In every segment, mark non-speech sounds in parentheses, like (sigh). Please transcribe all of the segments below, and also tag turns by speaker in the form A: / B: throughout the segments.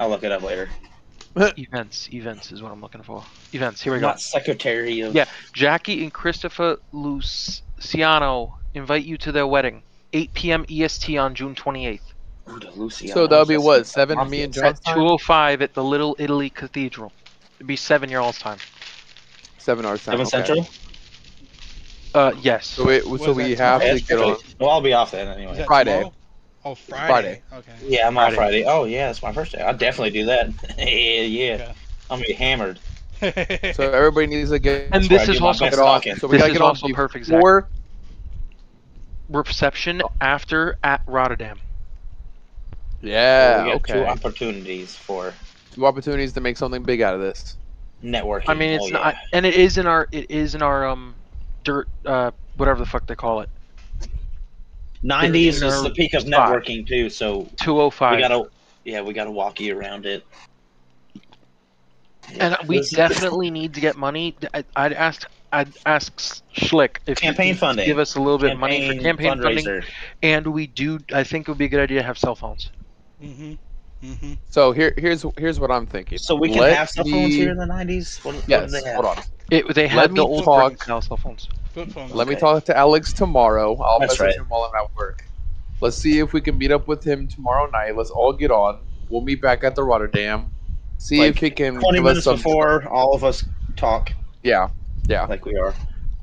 A: I'll look it up later.
B: Events, events is what I'm looking for. Events. Here we go.
A: Not secretary of.
B: Yeah. Jackie and Christopher Luciano invite you to their wedding, 8 p.m. EST E on June 28th.
A: Ooh, the Lucianos.
C: So that'll be
A: That's
C: what
A: the
C: seven for me
A: mafia
C: and
A: type.
C: John.
B: At 2:05 at the Little Italy Cathedral. It'd be seven year olds time.
C: Seven hours.
A: Seven
C: time. okay.
A: Central.
B: Uh, yes.
C: So we so
D: What
C: we
D: is
C: have
D: that time?
C: to
A: That's
C: get on.
A: perfect. Well, I'll be off then
D: Is
A: anyway.
D: that
C: Friday.
D: tomorrow? Oh, Friday. Okay.
A: Yeah, I'm off
B: Friday.
A: Friday. Oh yeah, it's my first day. I'll definitely do that. (laughs) yeah, yeah.
D: Okay.
A: I'm gonna be hammered.
D: (laughs)
C: So everybody needs to get
B: and
A: That's where
B: this
A: I
B: is
A: do my
B: also
A: best
C: get on.
A: talking.
C: So we
B: this
C: gotta
B: is
C: get on
B: also perfect. Zach.
C: before.
B: reception after at Rotterdam.
C: Yeah.
A: we got two
C: Okay.
A: opportunities for
C: Two opportunities to make something big out of this.
A: networking.
B: I mean,
A: Oh,
B: it's
A: yeah.
B: not, and it is in our, it is in our um, dirt, uh, whatever the fuck they call it,
A: 90s
B: They're-
A: is the peak of
B: they're five.
A: networking too. So
B: two oh
A: we
B: five.
A: gotta, yeah, we gotta walk you around it.
B: And
A: (laughs)
B: we
A: This is-
B: definitely need to get money. I, I'd ask, I'd ask Schlick if he
A: Campaign
B: can
A: funding.
B: give us a little bit of money for campaign funding,
A: fundraiser.
B: and we do. I think it would be a good idea to have cell phones.
D: hmm hmm
C: So here here's here's what I'm thinking.
A: So we can
C: Let
A: have cell phones
C: me-
A: here in the 90s. What, what
C: Yes.
A: do they have?
C: Hold on.
B: It, they
C: Let
B: had
C: me
B: the old brick
C: talk-
B: now cell phones.
D: Flip phones.
C: Let me
A: Okay.
C: talk to Alex tomorrow. I'll
A: That's
C: message
A: right.
C: him while I'm at work. Let's see if we can meet up with him tomorrow night. Let's all get on. We'll meet back at the Rotterdam. See
A: Like,
C: if he can
A: 20
C: give us
A: minutes
C: some.
A: before all of us talk
C: Yeah,
A: like we are.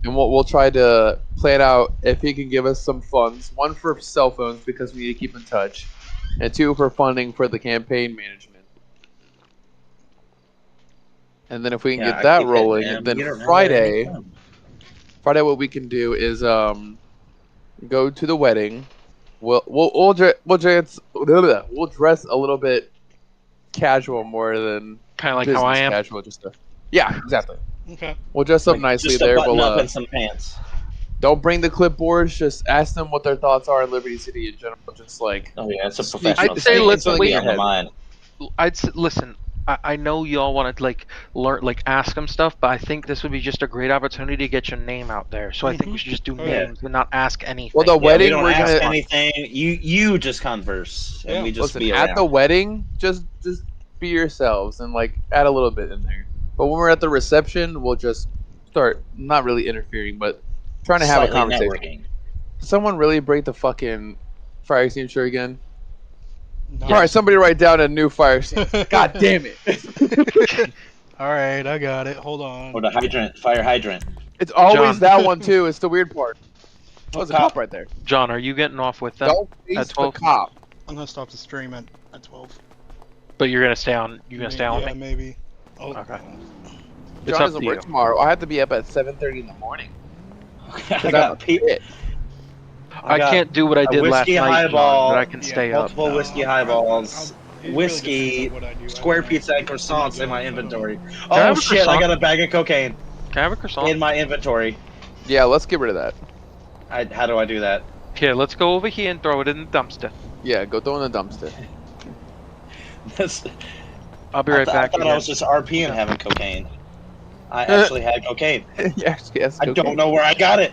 C: and we'll we'll try to plan out if he can give us some funds. One for cell phones because we need to keep in touch, and two for funding for the campaign management. And then if we can
A: Yeah,
C: get
A: I
C: that
A: keep hitting
C: rolling,
A: them.
C: and
A: You don't
C: then
A: know
C: Friday.
A: where they come.
C: Friday, what we can do is um, go to the wedding. We'll we'll we'll, dre- we'll dress we'll dress a little bit casual more than
B: Kind of like
C: business
B: how I am.
C: casual. Just to, yeah, exactly.
D: Okay.
C: We'll dress up
A: Like,
C: nicely
A: just a
C: there.
A: button
C: We'll
A: up
C: uh,
A: and some pants.
C: don't bring the clipboards. Just ask them what their thoughts are on Liberty City in general. Just like
A: Oh yeah, it's a
C: Sneak
A: professional.
B: I'd say
A: thing.
B: let's
A: It's gonna be
B: wait.
A: on the mind.
B: I'd s- listen. I, I know y'all want to like learn, like ask them stuff, but I think this would be just a great opportunity to get your name out there. So I think we should just do
D: Oh,
B: names
A: yeah.
B: and not ask anything.
C: Mm-hmm. well, the
A: Yeah, we
C: wedding
A: don't
C: we are
A: ask
C: gonna
A: anything. You you just converse and
D: Yeah.
A: we just
C: listen
A: be
C: at the
A: around.
C: wedding. Just just be yourselves and like add a little bit in there. But when we're at the reception, we'll just start not really interfering, but trying to have a
A: Slightly
C: conversation.
A: networking.
C: Did someone really break the fucking fire extinguisher again?
D: No.
C: All right, somebody write down a new fire
A: (laughs)
C: extinguisher. God damn it!
D: (laughs) All right, I got it. Hold on.
A: Or the hydrant, fire hydrant.
C: It's always
B: John.
C: that one too. It's the weird part. Oh, there's a cop right there.
B: John, are you getting off with them?
C: Don't face
B: that's
C: the
B: twelve.
C: cop.
D: I'm gonna stop the stream at, at 12.
B: But you're gonna stay on. You're gonna stay on.
D: yeah,
B: with me?
D: maybe. Oh,
B: Okay. It's
C: John
B: up
C: doesn't
B: to
C: work
B: you.
C: tomorrow. I have to be up at 7:30 in the morning.
A: I got pe-
C: Shit.
B: I,
A: got
B: can't do what I
A: a
B: did last
A: whiskey
B: night,
A: highball,
B: John, but I can
D: yeah,
B: stay up.
A: Multiple whiskey
D: No,
A: highballs,
D: I'll- I'll- it
A: Whiskey,
D: really depends on what I do. I
A: square
D: don't know.
A: pizza, and croissants in my inventory.
B: I
A: Oh
B: have a
A: shit! I
B: croissant?
A: got a bag of cocaine
B: Can I have a croissant?
A: in my inventory.
C: Yeah, let's get rid of that.
A: I, how do I do that? (laughs)
B: Here, let's go over here and throw it in the dumpster.
C: Yeah, go throw in the (laughs) dumpster.
A: That's-
B: I'll be
A: I
B: right
A: thought-
B: back.
A: I thought I
B: again.
A: was just RP and having cocaine. I actually had cocaine.
C: yes, yes.
A: I
C: go get
A: don't
C: it.
A: know where I got it.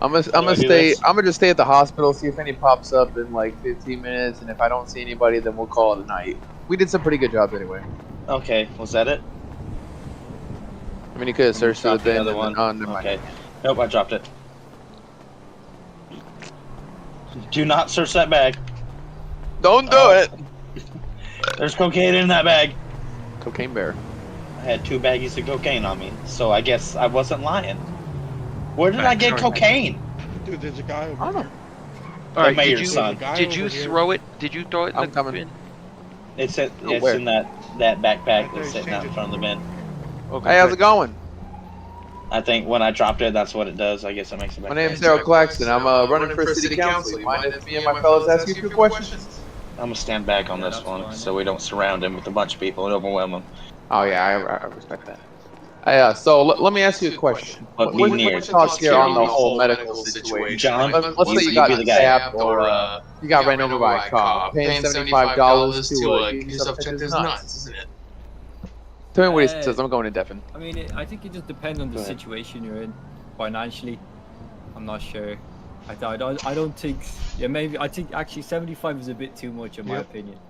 C: I'm gonna, I'm
A: do I
C: gonna
A: do
C: stay.
A: this?
C: I'm gonna just stay at the hospital, see if any pops up in like 15 minutes, and if I don't see anybody, then we'll call it a night. We did some pretty good jobs anyway.
A: Okay, was that it?
C: I mean, you could have searched through the
A: Drop the
C: bin.
A: other
C: and
A: one.
C: then- oh, never mind.
A: Okay. Nope, I dropped it. Do not search that bag.
C: Don't do
A: Oh.
C: it.
A: There's cocaine in that bag.
C: Cocaine bear.
A: I had two baggies of cocaine on me, so I guess I wasn't lying. Where did I
B: Back
A: get
B: door.
A: cocaine?
D: Dude, there's a guy over
C: I don't
D: here.
B: All
A: the
B: right, did
A: mayor's
B: you
A: son.
D: Guy
B: did
D: over
B: you
D: here.
B: throw it? Did you throw it? In
C: I'm
B: the
C: coming.
B: bin?
A: It's in,
C: Oh,
A: it's
C: where?
A: in that that backpack
D: Right there,
A: that's sitting out in
D: change
A: front of the bin.
B: Okay.
C: Hey, how's it
B: good.
C: going?
A: I think when I dropped it, that's what it does. I guess it makes it back.
C: My name's Daryl Claxton. I'm uh, running for city council. Mind if me and my fellows ask you a few questions?
A: I'm gonna stand back on this one so we don't surround him with a bunch of people and overwhelm him.
C: Oh yeah, I, I respect that. Hey, uh, so l- let me ask you a question.
A: But
C: What, what, what
A: we
C: are your
A: near.
C: thoughts here on the whole medical situation?
A: John,
C: Let's, let's
A: you
C: say you
A: be
C: got
A: the guy.
C: stabbed or uh, you got ran over by a car, paying seventy-five dollars to uh,
E: give yourself checked as nuts, isn't it?
C: Tell me what he
E: Uh,
C: says. I'm going to Devon.
E: I mean, it, I think it just depends on the
A: Go ahead.
E: situation you're in financially. I'm not sure. I, I, don't- I don't think. Yeah, maybe. I think actually 75 is a bit too much, in my
D: Yep.
E: opinion.